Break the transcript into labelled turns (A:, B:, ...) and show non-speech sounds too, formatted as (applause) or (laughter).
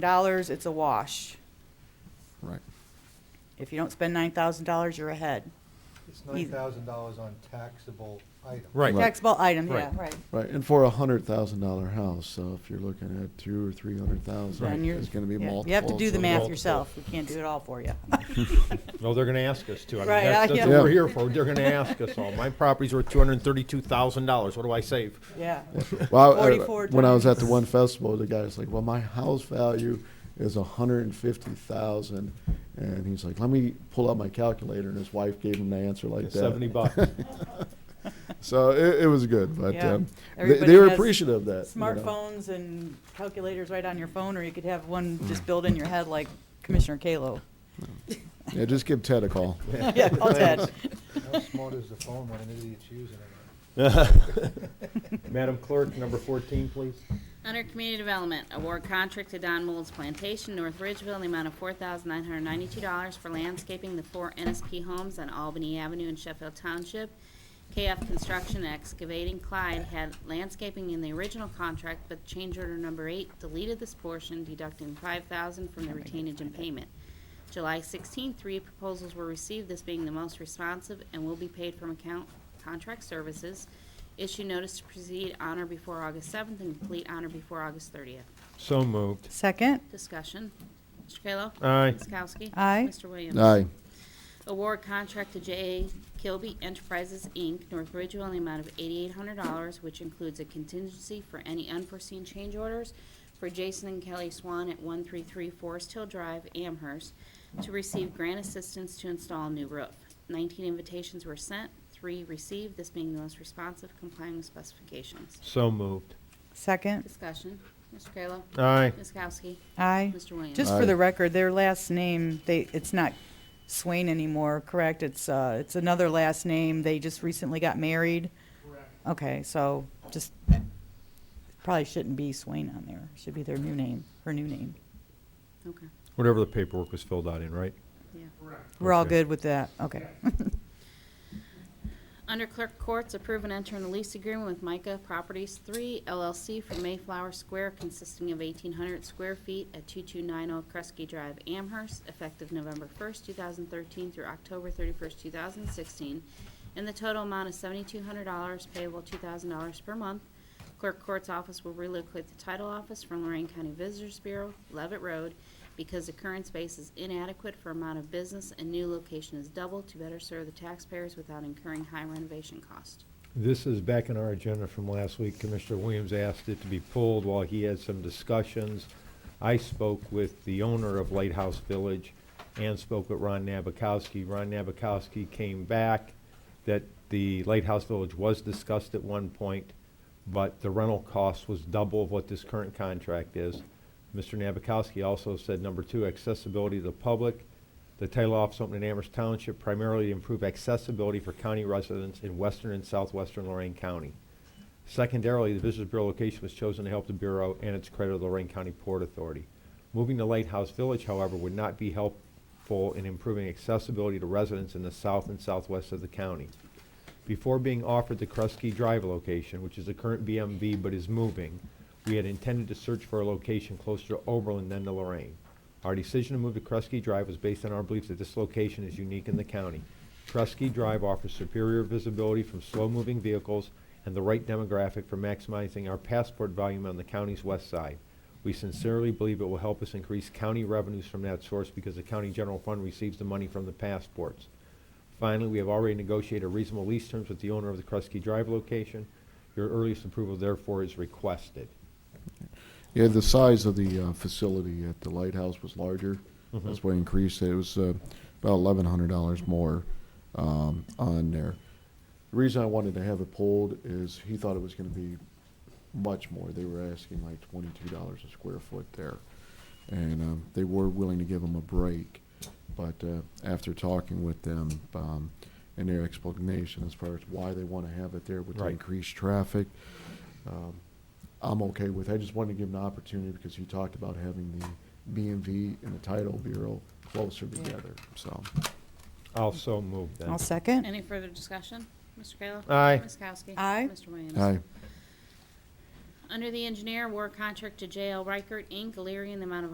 A: dollars, it's a wash.
B: Right.
A: If you don't spend nine thousand dollars, you're ahead.
C: It's
A: Either.
C: nine thousand dollars on taxable items.
D: Right.
B: Right.
A: Taxable item, yeah,
D: Right.
A: right.
B: Right, and for a hundred thousand dollar house, so if you're looking at two or three hundred
A: Then
B: thousand,
A: you're-
B: it's gonna be
A: yeah,
B: multiple.
A: You have to do the math
D: multiple.
A: yourself. We can't do it all for you. (laughs)
D: No, they're gonna ask us to. I mean,
A: Right,
D: that's,
A: I-
D: that's what we're
B: Yeah.
D: here for. They're gonna ask us all. My property's worth two hundred and thirty-two thousand dollars. What do I save?
A: (laughs) Yeah.
B: (laughs)
A: (laughs)
B: Well, I-
A: 44
B: when I was at the
A: times.
B: one festival, the guy was like, "Well, my house value is a hundred and fifty thousand, and he's like, "Let me pull out my calculator," and his wife gave him the answer like that.
D: Seventy bucks.
B: (laughs) So it, it was good, but
A: Yeah.
B: um, they,
A: Everybody
B: they were
A: has
B: appreciative of that. you know.
A: Smartphones and calculators right on your phone, or you could have one just built in your head like Commissioner Kalo. (laughs)
B: Yeah, just give Ted a call.
A: (laughs) Yeah, call
C: (laughs)
A: Ted.
C: How smart is the phone when an idiot's using it? (laughs)
D: Madam Clerk, number fourteen, please.
E: Under Community Development, award contract to Don Mold's Plantation, North Ridgeville, in the amount of four thousand nine hundred ninety-two dollars for landscaping the four NSP homes on Albany Avenue in Sheffield Township. KF Construction Excavating Clyde had landscaping in the original contract, but change order number eight deleted this portion, deducting five thousand from the retainage and payment. July 16, three proposals were received, this being the most responsive and will be paid from account contract services. Issue notice to proceed on or before August 7th and complete on or before August 30th.
D: So moved.
A: Second,
E: Discussion. Mr. Kayla?
D: Aye.
E: Ms. Kowski?
A: Aye.
E: Mr. Williams?
B: Aye,
E: Award contract to J.A. Kilby Enterprises, Inc., North Ridgeville, in the amount of $8,800, which includes a contingency for any unforeseen change orders for Jason and Kelly Swan at 133 Forest Hill Drive, Amherst, to receive grant assistance to install a new roof. 19 invitations were sent, three received, this being the most responsive complying with specifications.
D: So moved.
A: second,
E: Discussion. Mr. Kayla?
D: Aye.
E: Ms. Kowski?
A: aye.
E: Mr. Williams?
A: Just for the record, their last name, they, it's not Swain anymore, correct? It's, uh, it's another last name. They just recently got married. Okay, so just, probably shouldn't be Swain on there. Should be their new name, her new name.
E: Okay,
D: Whatever the paperwork was filled out in, right?
E: yeah.
A: We're all
D: Okay.
A: good with that, okay.
E: Under Clerk Courts, approve and enter in a lease agreement with Micah Properties 3 LLC for Mayflower Square consisting of 1,800 square feet at 2290 Kresge Drive, Amherst, effective November 1st, 2013 through October 31st, 2016, and the total amount is $7,200 payable $2,000 per month. Clerk Court's office will relocate the title office from Lorraine County Visitors Bureau, Levitt Road, because the current space is inadequate for amount of business and new location is double to better serve the taxpayers without incurring high renovation cost.
D: This is back in our agenda from last week. Commissioner Williams asked it to be pulled while he had some discussions. I spoke with the owner of Lighthouse Village and spoke with Ron Nabokowski. Ron Nabokowski came back that the Lighthouse Village was discussed at one point, but the rental cost was double of what this current contract is. Mr. Nabokowski also said, number two, accessibility to the public. The title office opened in Amherst Township primarily to improve accessibility for county residents in western and southwestern Lorraine County. Secondarily, the Visitors Bureau location was chosen to help the Bureau and its creditor, Lorraine County Port Authority. Moving to Lighthouse Village, however, would not be helpful in improving accessibility to residents in the south and southwest of the county. Before being offered the Kresge Drive location, which is the current BMV but is moving, we had intended to search for a location closer to Oberlin than to Lorraine. Our decision to move to Kresge Drive was based on our belief that this location is unique in the county. Kresge Drive offers superior visibility from slow-moving vehicles and the right demographic for maximizing our passport volume on the county's west side. We sincerely believe it will help us increase county revenues from that source because the county general fund receives the money from the passports. Finally, we have already negotiated reasonable lease terms with the owner of the Kresge Drive location. Your earliest approval therefore is requested.
B: yeah, the size of the uh, facility at the lighthouse was larger. That's why I increased it. It was uh, about eleven hundred dollars more um, on there. The reason I wanted to have it pulled is he thought it was gonna be much more. They were asking like twenty-two dollars a square foot there. And um, they were willing to give him a break, but uh, after talking with them um, and their explanation as far as why they want to have it there with the
D: Right.
B: increased traffic, um, I'm okay with. I just wanted to give him an opportunity because he talked about having the BMV and the title bureau closer together, so.
D: I'll so move
A: (laughs)
D: then.
A: I'll second.
E: Any further discussion? Mr. Kayla?
D: Aye.
E: Ms. Kowski?
A: Aye.
E: Mr. Williams?
B: Aye,
E: Under the engineer, award contract to J.L. Reichert, Inc., Illyria, in the amount of